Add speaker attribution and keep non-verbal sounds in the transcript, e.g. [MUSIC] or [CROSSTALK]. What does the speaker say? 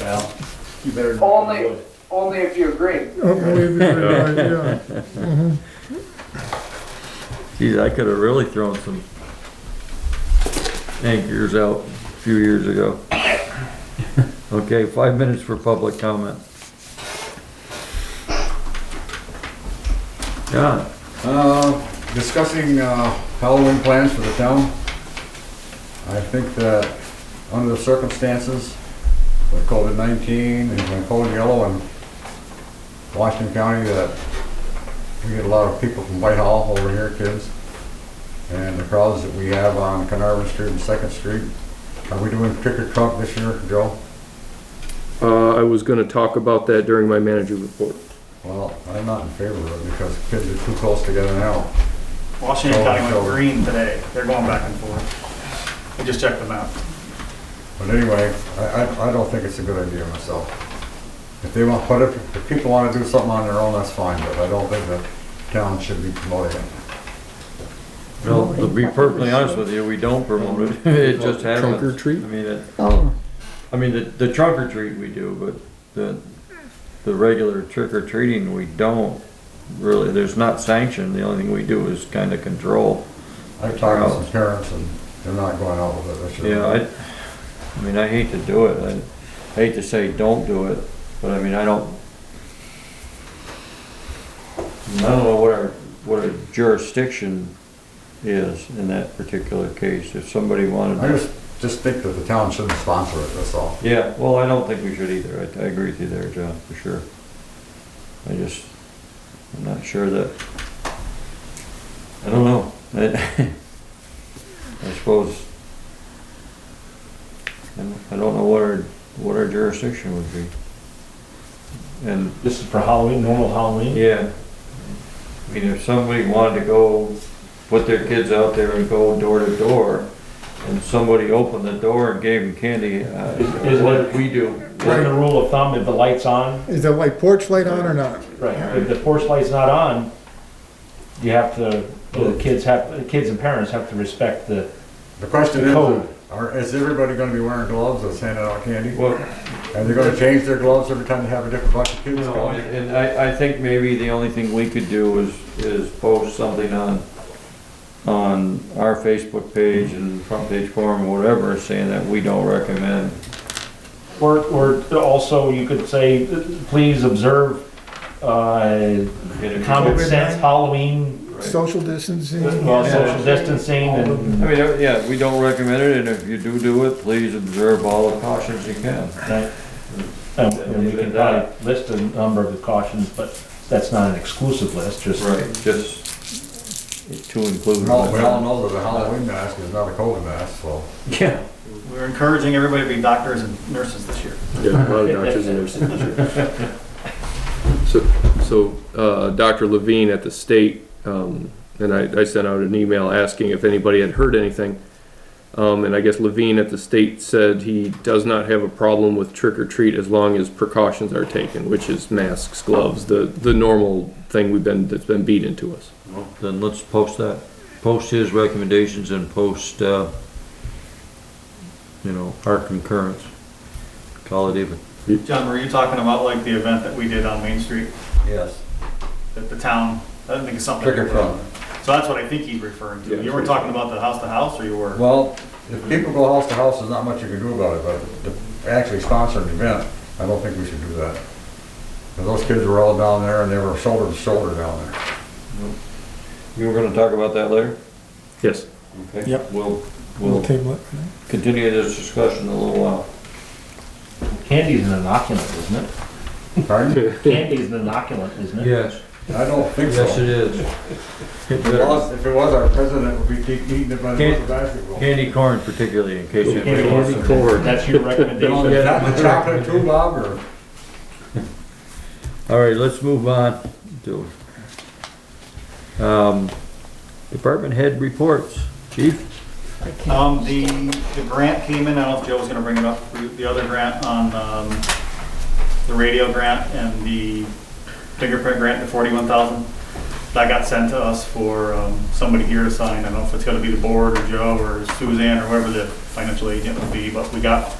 Speaker 1: Well, you better. knock on
Speaker 2: Only,
Speaker 1: wood.
Speaker 2: only if you agree.
Speaker 3: Geez, I could have really thrown some anchors out a few years ago. Okay, five minutes for public comment. Yeah,
Speaker 4: Uh, discussing uh, Halloween plans for the town. I think that under the circumstances with COVID-19 and with Code Yellow and Washington County, that we get a lot of people from Whitehall over here, kids. And the crowds that we have on Carnarvon Street and Second Street. Are we doing trick or trunk this year, Joe?
Speaker 5: Uh, I was gonna talk about that during my manager report.
Speaker 4: Well, I'm not in favor of it because kids are too close together now.
Speaker 1: Washington County went
Speaker 4: Over.
Speaker 1: green today. They're going back and forth. I just checked them out.
Speaker 4: But anyway, I, I, I don't think it's a good idea myself. If they want, but if, if people wanna do something on their own, that's fine, but I don't think the town should be promoting it.
Speaker 3: well, to be perfectly honest with you, we don't promote it, [LAUGHS] it just happens.
Speaker 5: Trunk or treat?
Speaker 3: I mean, it,
Speaker 6: Oh,
Speaker 3: I mean, the, the trunk or treat we do, but the, the regular trick or treating, we don't really, there's not sanction, the only thing we do is kinda control.
Speaker 4: I've talked to some parents and they're not going out with it this year.
Speaker 3: Yeah, I, I mean, I hate to do it, I hate to say don't do it, but I mean, I don't. I don't know what our, what our jurisdiction is in that particular case, if somebody wanted
Speaker 4: I
Speaker 3: to.
Speaker 4: just, just think that the town shouldn't sponsor it, that's all.
Speaker 3: Yeah, well, I don't think we should either. I, I agree with you there, John, for sure. I just, I'm not sure that, I don't know. I [LAUGHS] I suppose, I don't- I don't know what our, what our jurisdiction would be. And,
Speaker 7: This is for Halloween, normal Halloween?
Speaker 3: yeah, I mean, if somebody wanted to go put their kids out there and go door to door, and somebody opened the door and gave them candy, uh,
Speaker 7: Is- is
Speaker 3: what
Speaker 7: it-
Speaker 3: we do.
Speaker 7: Isn't the rule of thumb, if the light's on,
Speaker 8: Is the white porch light on or not?
Speaker 7: right, if the porch light's not on, you have to, the kids have, the kids and parents have to respect the,
Speaker 4: The question
Speaker 7: The code.
Speaker 4: is, are, is everybody gonna be wearing gloves that's handing out candy?
Speaker 3: Well,
Speaker 4: Are they gonna change their gloves every time they have a different bunch of kids
Speaker 3: no,
Speaker 4: going?
Speaker 3: and I, I think maybe the only thing we could do is, is post something on, on our Facebook page and front page forum, or whatever, saying that we don't recommend.
Speaker 7: or, or also you could say, please observe, uh,
Speaker 3: it.
Speaker 7: common sense Halloween,
Speaker 8: Social distancing?
Speaker 7: well, social distancing and,
Speaker 3: I mean, uh, yeah, we don't recommend it, and if you do do it, please observe all the cautions you can.
Speaker 7: right? And we can probably list a number of cautions, but that's not an exclusive list, just.
Speaker 3: Just to include.
Speaker 4: No, we all know that the Halloween mask is not a COVID mask, so.
Speaker 3: Yeah.
Speaker 1: We're encouraging everybody to be doctors and nurses this year.
Speaker 5: Yeah, a lot of doctors and nurses. So, so, uh, Dr. Levine at the state, um, and I, I sent out an email asking if anybody had heard anything. Um, and I guess Levine at the state said he does not have a problem with trick or treat as long as precautions are taken, which is masks, gloves, the, the normal thing we've been, that's been beat into us.
Speaker 3: Then let's post that, post his recommendations and post, uh, you know, our concurrence. Call it even.
Speaker 1: John, were you talking about like the event that we did on Main Street,
Speaker 4: Yes.
Speaker 1: that the town, I don't think it's something.
Speaker 4: Trick or trunk.
Speaker 1: So that's what I think he's referring to. You were talking about the house to house, or you were?
Speaker 4: Well, if people go house to house, there's not much you can do about it, but to actually sponsor an event, I don't think we should do that. 'Cause those kids were all down there and they were shoulder to shoulder down there.
Speaker 3: You were gonna talk about that later?
Speaker 5: Yes.
Speaker 3: Okay.
Speaker 8: Yep.
Speaker 3: We'll,
Speaker 8: We'll
Speaker 3: we'll
Speaker 8: table it.
Speaker 3: continue this discussion in a little while.
Speaker 7: Candy's an inoculant, isn't it?
Speaker 4: Pardon?
Speaker 3: [LAUGHS]
Speaker 7: Candy's an inoculant, isn't it?
Speaker 3: Yes,
Speaker 4: I don't think so.
Speaker 3: yes it is.
Speaker 4: If it was- if it was, our president would be keep eating it by the
Speaker 3: Can't-
Speaker 4: basketball.
Speaker 3: Candy corn particularly, in case
Speaker 7: Candy
Speaker 3: anybody
Speaker 7: corn.
Speaker 3: wants some.
Speaker 5: Corn.
Speaker 7: That's your recommendation.
Speaker 4: Is that the chocolate too, Bob, or?
Speaker 3: All right, let's move on to, um, department head reports. Chief?
Speaker 1: Um, the, the grant came in, I don't know if Joe was gonna bring it up, the- the other grant on, um, the radio grant and the fingerprint grant, the forty-one thousand. that got sent to us for um, somebody here to sign. I don't know if it's gonna be the board or Joe or Suzanne or whoever the financial agent would be, but we got